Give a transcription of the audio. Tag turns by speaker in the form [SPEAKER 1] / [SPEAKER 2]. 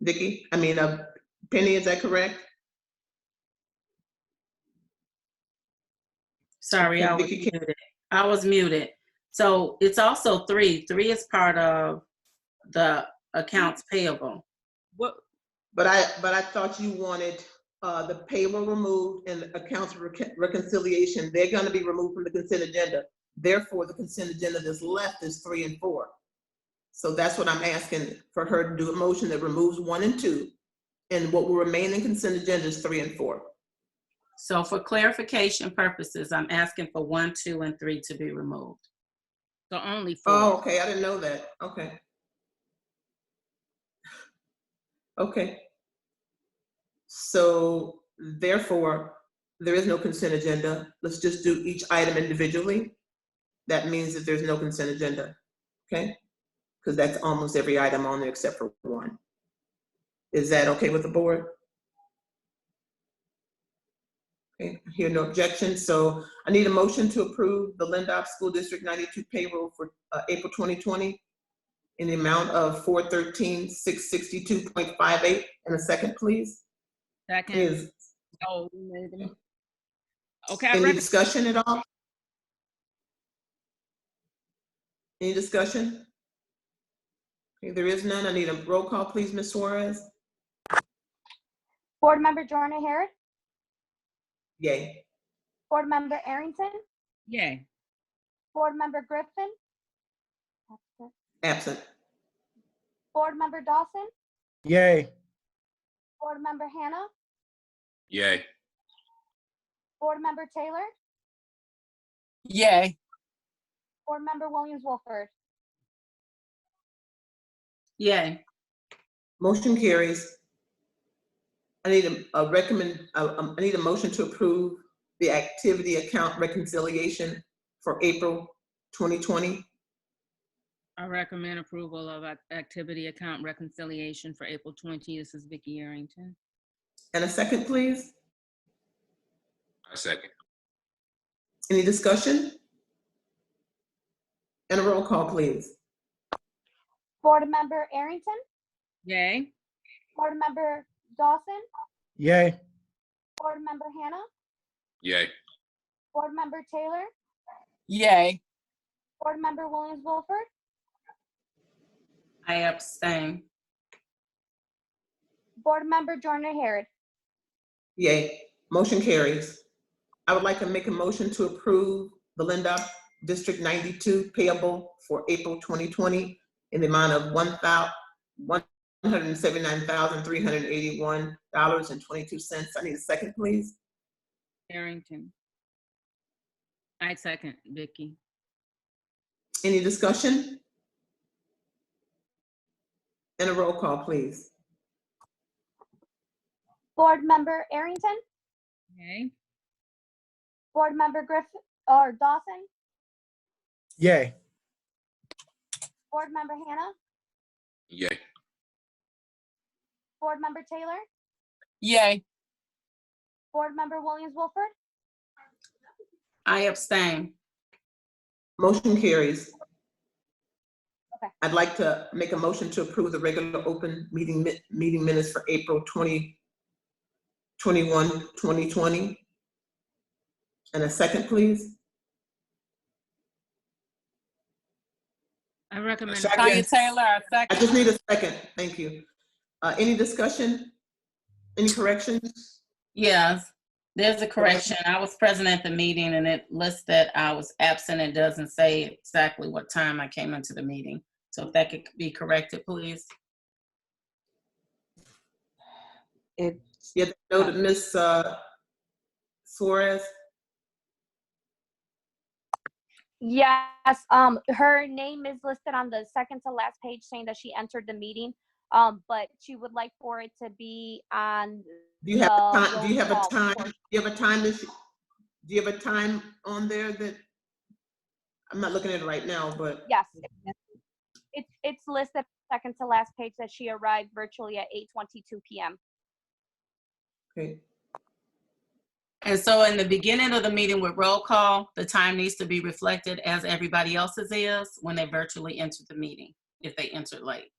[SPEAKER 1] Vicky? I mean, uh, Penny, is that correct?
[SPEAKER 2] Sorry, I
[SPEAKER 1] Okay,
[SPEAKER 2] was
[SPEAKER 1] Vicky, can-
[SPEAKER 2] muted. I was muted. So it's also three. Three is part of the accounts payable.
[SPEAKER 3] What,
[SPEAKER 1] But I, but I thought you wanted uh, the payroll removed and accounts rec- reconciliation, they're gonna be removed from the consent agenda. Therefore, the consent agenda that's left is three and four. So that's what I'm asking for her to do, a motion that removes one and two. And what will remain in consent agenda is three and four.
[SPEAKER 2] So for clarification purposes, I'm asking for one, two, and three to be removed.
[SPEAKER 3] so only four?
[SPEAKER 1] Oh, okay, I didn't know that, okay. Okay. So therefore, there is no consent agenda. Let's just do each item individually. That means that there's no consent agenda, okay? Because that's almost every item on there except for one. Is that okay with the board? Okay, I hear no objection, so I need a motion to approve the Lindop School District 92 payroll for uh, April 2020 in the amount of 413,662.58. And a second, please.
[SPEAKER 3] Second.
[SPEAKER 1] Is
[SPEAKER 3] Oh, we made them. Okay, I
[SPEAKER 1] any
[SPEAKER 3] rec-
[SPEAKER 1] discussion at all? Any discussion? Okay, there is none. I need a roll call, please, Ms. Suarez.
[SPEAKER 4] Board Member Jordan Harret,
[SPEAKER 1] Yay.
[SPEAKER 4] Board Member Arrington,
[SPEAKER 3] yay.
[SPEAKER 4] Board Member Griffin,
[SPEAKER 1] Absent.
[SPEAKER 4] Board Member Dawson,
[SPEAKER 5] Yay.
[SPEAKER 4] Board Member Hannah,
[SPEAKER 6] Yay.
[SPEAKER 4] Board Member Taylor,
[SPEAKER 3] Yay.
[SPEAKER 4] Board Member Williams Wolford.
[SPEAKER 2] Yay.
[SPEAKER 1] Motion carries. I need a- a recommend, uh, um, I need a motion to approve the activity account reconciliation for April 2020.
[SPEAKER 3] I recommend approval of ac- activity account reconciliation for April 20. This is Vicky Arrington.
[SPEAKER 1] And a second, please.
[SPEAKER 6] I second.
[SPEAKER 1] Any discussion? And a roll call, please.
[SPEAKER 4] Board Member Arrington,
[SPEAKER 3] Yay.
[SPEAKER 4] Board Member Dawson,
[SPEAKER 5] Yay.
[SPEAKER 4] Board Member Hannah,
[SPEAKER 6] Yay.
[SPEAKER 4] Board Member Taylor,
[SPEAKER 3] Yay.
[SPEAKER 4] Board Member Williams Wolford,
[SPEAKER 2] I abstain.
[SPEAKER 4] Board Member Jordan Harret.
[SPEAKER 1] Yay. Motion carries. I would like to make a motion to approve the Lindup District 92 payable for April 2020 in the amount of $179,381.22. I need a second, please.
[SPEAKER 3] Arrington. I second Vicky.
[SPEAKER 1] Any discussion? And a roll call, please.
[SPEAKER 4] Board Member Arrington,
[SPEAKER 3] Yay.
[SPEAKER 4] Board Member Griffin, or Dawson,
[SPEAKER 5] Yay.
[SPEAKER 4] Board Member Hannah,
[SPEAKER 6] Yay.
[SPEAKER 4] Board Member Taylor,
[SPEAKER 3] Yay.
[SPEAKER 4] Board Member Williams Wolford,
[SPEAKER 2] I abstain.
[SPEAKER 1] Motion carries.
[SPEAKER 4] Okay.
[SPEAKER 1] I'd like to make a motion to approve the regular open meeting, mi- meeting minutes for April 20, 21, 2020. And a second, please.
[SPEAKER 3] I recommend.
[SPEAKER 5] second. Tanya
[SPEAKER 3] Taylor, I
[SPEAKER 1] I just need a second, thank you. Uh, Any discussion? Any corrections?
[SPEAKER 2] Yes, there's a correction. I was present at the meeting and it lists that I was absent. It doesn't say exactly what time I came into the meeting. So if that could be corrected, please.
[SPEAKER 7] It,
[SPEAKER 1] Yes, noted, Ms. uh, Suarez?
[SPEAKER 4] Yes, um, her name is listed on the second to last page saying that she entered the meeting. Um, but she would like for it to be on,
[SPEAKER 1] Do you have a
[SPEAKER 4] No,
[SPEAKER 1] time, do you have a
[SPEAKER 4] roll call.
[SPEAKER 1] time, do you have a time this, do you have a time on there that? I'm not looking at it right now, but,
[SPEAKER 4] yes. It's, it's listed second to last page that she arrived virtually at eight twenty-two PM.
[SPEAKER 1] okay,
[SPEAKER 2] And so in the beginning of the meeting with roll call, the time needs to be reflected as everybody else's is when they virtually entered the meeting, if they entered late.